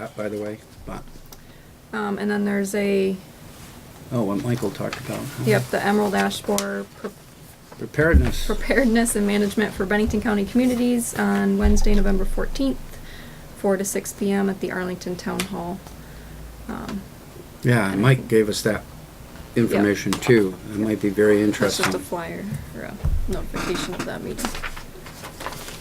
that, by the way, but, Um, and then there's a, oh, what Michael talked about. uh-huh. huh? yep, the Emerald Ash Borer pre- Preparedness, Preparedness and Management for Bennington County Communities on Wednesday, November fourteenth, four to six PM at the Arlington Town Hall. Um, yeah, and Mike gave us that information too, it might be very That's just a interesting. flyer or a notification of that meeting.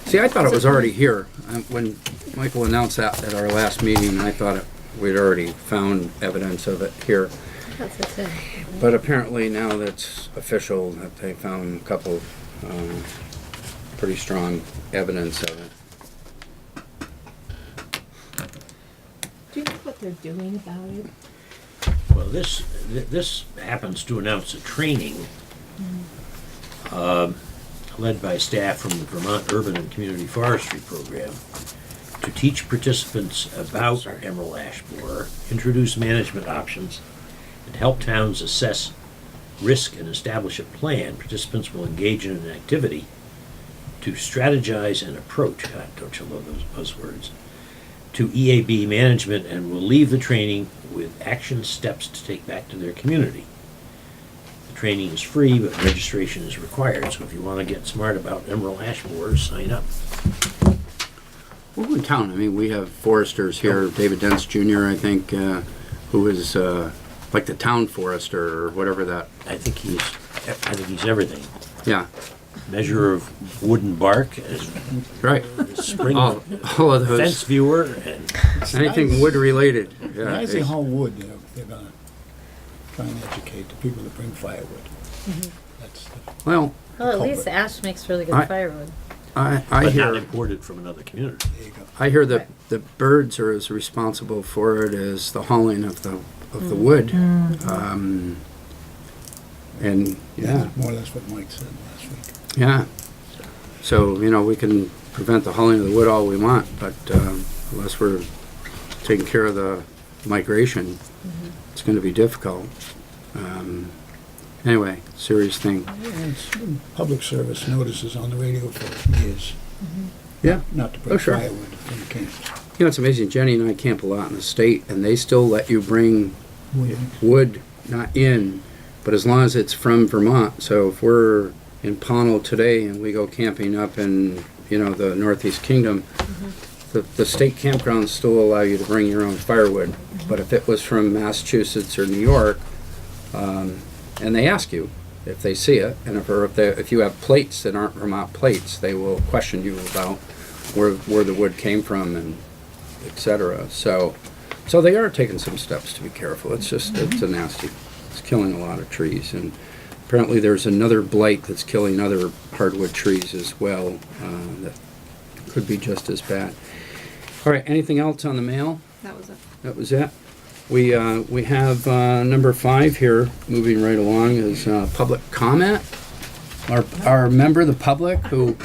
See, I thought it was already here, Um, when Michael announced that at our last meeting, I thought it- we'd already found evidence of it here. That's it. too. But apparently now that's official, that they found a couple, um, pretty strong evidence of it. Do you know what they're doing about it? Well, this, th- this happens to announce a training um, led by staff from the Vermont Urban and Community Forestry Program to teach participants about emerald ash borer, introduce management options, and help towns assess risk and establish a plan. Participants will engage in an activity to strategize and approach, God, don't you love those buzzwords, to EAB management and will leave the training with action steps to take back to their community. The training is free, but registration is required, so if you want to get smart about emerald ash borers, sign up. Well, in town, I mean, we have foresters here, David Dents Jr., I think, uh, who is uh, like the town forester or whatever that, I think he's, I think he's everything. yeah, Measure of wooden bark, as right. spring All, all of fence those, viewer, and anything wood-related. yeah, Rising it's- whole wood, you know, they're gonna try and educate the people that bring firewood. That's the Well, Mm-hmm. Well, at Culprit. least the ash makes really I- good firewood. I, I but not hear, imported from another community. there you go. I hear that the birds are as responsible for it as the hauling of the, of the wood. Um, And, yeah, That's more or less what Mike said last week. yeah. So, you know, we can prevent the hauling of the wood all we want, but um, unless we're taking care of the migration, it's gonna be difficult. Um, Anyway, serious thing. And it's been Public service notices on the radio for years, Yeah. not to Oh, bring sure. firewood from camps. You know, it's amazing, Jenny and I camp a lot in the state, and they still let you bring Wood. wood not in, but as long as it's from Vermont. So if we're in Pownell today and we go camping up in, you know, the Northeast Kingdom, the, the state campgrounds still allow you to bring your own firewood. But if it was from Massachusetts or New York, um, and they ask you if they see it, and if, or if they, if you have plates that aren't Vermont plates, they will question you about where, where the wood came from and et cetera. So, so they are taking some steps to be careful. It's just, it's a nasty, it's killing a lot of trees. And apparently there's another blight that's killing other hardwood trees as well, uh, that could be just as bad. All right, anything else on the mail? That was it. That was it. We, uh, we have, uh, number five here, moving right along, is, uh, public comment. Our, our member of the public who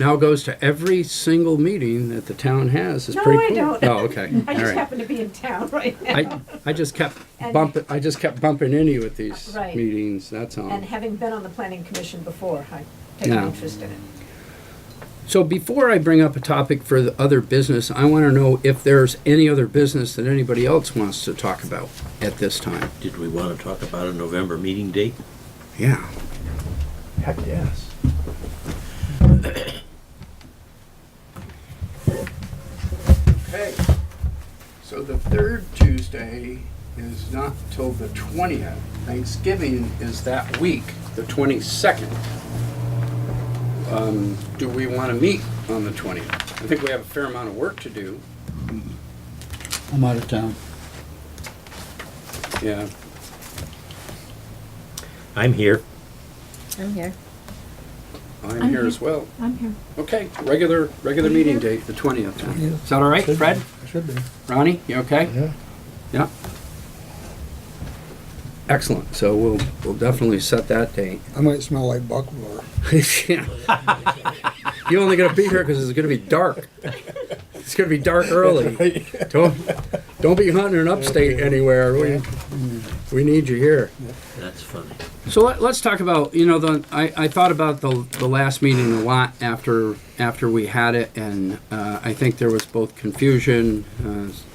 now goes to every single meeting that the town has is No, pretty I cool. don't. Oh, okay. I All just right. happen to be in town right now. I, I just kept And- Uh, bumping, I just kept bumping into you at these Right. meetings, that's all. And having been on the planning commission before, I take an Yeah. interest in it. So before I bring up a topic for the other business, I want to know if there's any other business that anybody else wants to talk about at this time. Did we want to talk about a November meeting date? Yeah. Heck, yes. Okay, so the third Tuesday is not till the twentieth. Thanksgiving is that week, the twenty-second. Um, do we want to meet on the twentieth? I think we have a fair amount of work to do. I'm out of town. Yeah. I'm here. I'm here. I'm here as well. I'm here. Okay, regular, regular meeting date, the twentieth. Is that all right, Fred? Should be. Ronnie, you okay? Yeah. Yeah. Excellent, so we'll, we'll definitely set that date. I might smell like buckwheat. Yeah. You're only gonna be here because it's gonna be dark. It's gonna be dark early. Don't, don't be hunting in upstate anywhere, we, we need you here. That's funny. So let, let's talk about, you know, the, I, I thought about the, the last meeting a lot after, after we had it, and, uh, I think there was both confusion, uh,